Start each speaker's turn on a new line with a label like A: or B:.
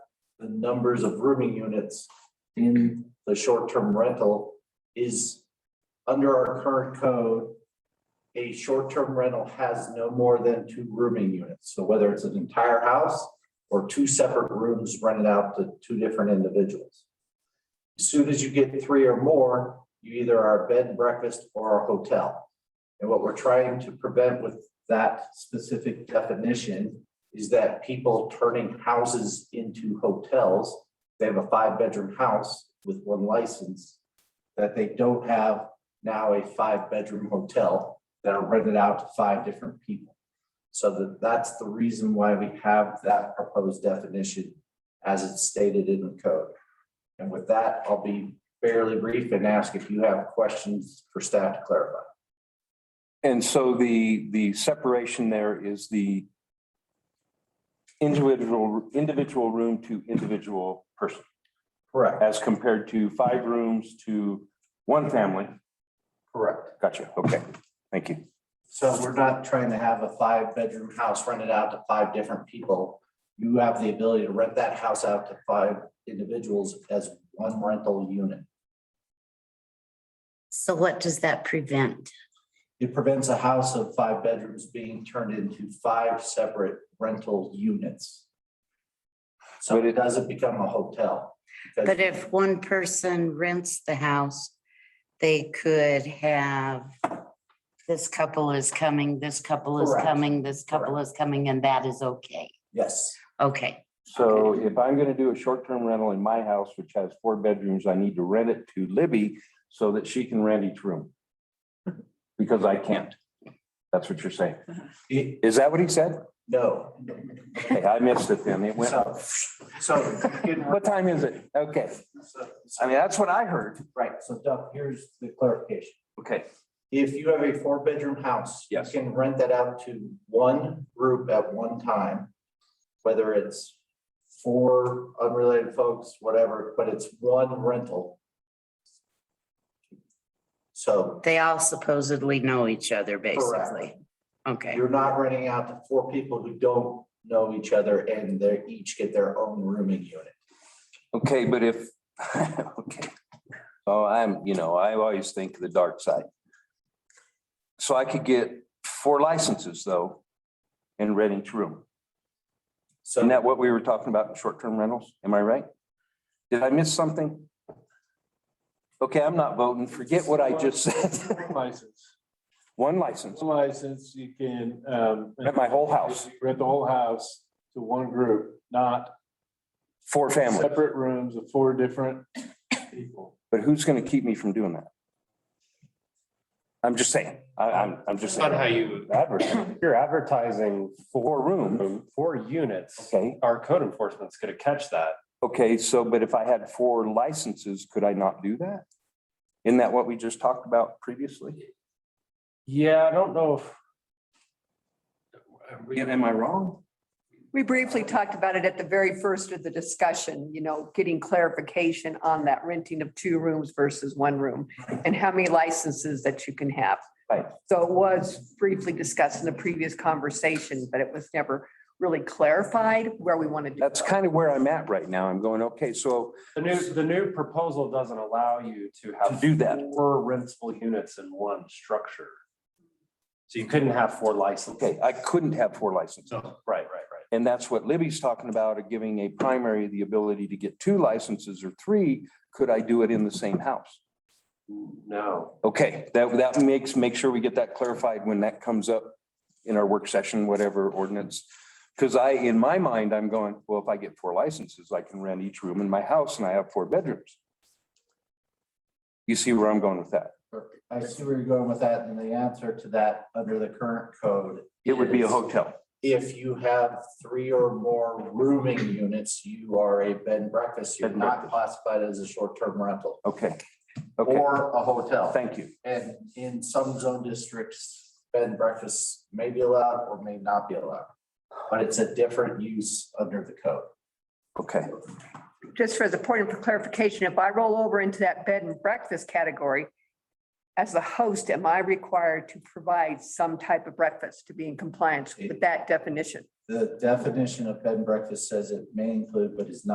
A: the numbers of rooming units in the short-term rental is under our current code, a short-term rental has no more than two rooming units. So whether it's an entire house or two separate rooms rented out to two different individuals. As Soon as you get three or more, you either are a bed and breakfast or a hotel. And what we're trying to prevent with that specific definition is that people turning houses into hotels. They have a five-bedroom house with one license that they don't have now a five-bedroom hotel that are rented out to five different people. So that, that's the reason why we have that proposed definition as it's stated in the code. And with that, I'll be fairly brief and ask if you have questions for staff to clarify.
B: And so the, the separation there is the individual, individual room to individual person,
A: Correct,
B: as compared to five rooms to one family.
A: correct.
B: Gotcha. Okay. Thank you.
A: So we're not trying to have a five-bedroom house rented out to five different people. You have the ability to rent that house out to five individuals as one rental unit.
C: So what does that prevent?
A: It prevents a house of five bedrooms being turned into five separate rental units. So
B: But
A: it
B: it-
A: doesn't become a hotel. because-
C: But if one person rents the house, they could have this couple is coming, this couple is
A: Correct.
C: coming, this couple is coming, and that is okay.
A: Yes,
C: Okay,
B: So if I'm going to do a short-term rental in my house, which has four bedrooms, I need to rent it to Libby so that she can rent each room. Because I can't. That's what you're saying.
A: it,
B: Is that what he said?
A: no.
B: Hey, I missed it then. It went,
A: So, so you can-
B: what time is it? Okay.
A: so-
B: I mean, that's what I heard.
A: right, so Doug, here's the clarification.
B: Okay.
A: If you have a four-bedroom house. you
B: Yes.
A: Can rent that out to one group at one time, whether it's four unrelated folks, whatever, but it's one rental. So
C: they all supposedly know each other, basically. Okay,
A: you're not renting out to four people who don't know each other and they each get their own rooming unit.
B: Okay, but if, okay. So I'm, you know, I always think the dark side. So I could get four licenses though and rent each room.
A: So
B: Isn't that what we were talking about in short-term rentals? Am I right? Did I miss something? Okay, I'm not voting. Forget what I just said.
D: License,
B: One license,
D: license, you can, um.
B: Rent my whole house.
D: Rent the whole house to one group, not
B: four families.
D: separate rooms of four different people.
B: But who's going to keep me from doing that? I'm just saying, I, I'm, I'm just saying.
E: Not how you,
B: Advertising.
E: you're advertising
B: Four
E: for
B: rooms.
E: four units.
B: Okay,
E: Our code enforcement's gonna catch that.
B: okay, so, but if I had four licenses, could I not do that? Isn't that what we just talked about previously?
E: Yeah, I don't know if.
B: Am I wrong?
F: We briefly talked about it at the very first of the discussion, you know, getting clarification on that renting of two rooms versus one room and how many licenses that you can have.
B: Right.
F: So it was briefly discussed in the previous conversation, but it was never really clarified where we wanted to.
B: That's
F: go.
B: kind of where I'm at right now. I'm going, okay, so
E: The new, the new proposal doesn't allow you to
B: to
E: have
B: do that,
E: four rentable units in one structure. So you couldn't have four licenses.
B: okay, I couldn't have four licenses.
E: So, right, right, right.
B: And that's what Libby's talking about, of giving a primary the ability to get two licenses or three. Could I do it in the same house?
E: No,
B: Okay, that, that makes, make sure we get that clarified when that comes up in our work session, whatever ordinance. Because I, in my mind, I'm going, well, if I get four licenses, I can rent each room in my house and I have four bedrooms. You see where I'm going with that?
A: I see where you're going with that and the answer to that under the current code
B: It would be a
A: Yes.
B: hotel.
A: if you have three or more rooming units, you are a bed and breakfast. You're
B: Bed and
A: not classified as a short-term rental
B: Okay. Okay,
A: or a hotel.
B: thank you.
A: And in some zone districts, bed and breakfasts may be allowed or may not be allowed. But it's a different use under the code.
B: Okay,
F: Just for the point of clarification, if I roll over into that bed and breakfast category, as the host, am I required to provide some type of breakfast to be in compliance with that definition?
A: The definition of bed and breakfast says it may include, but is not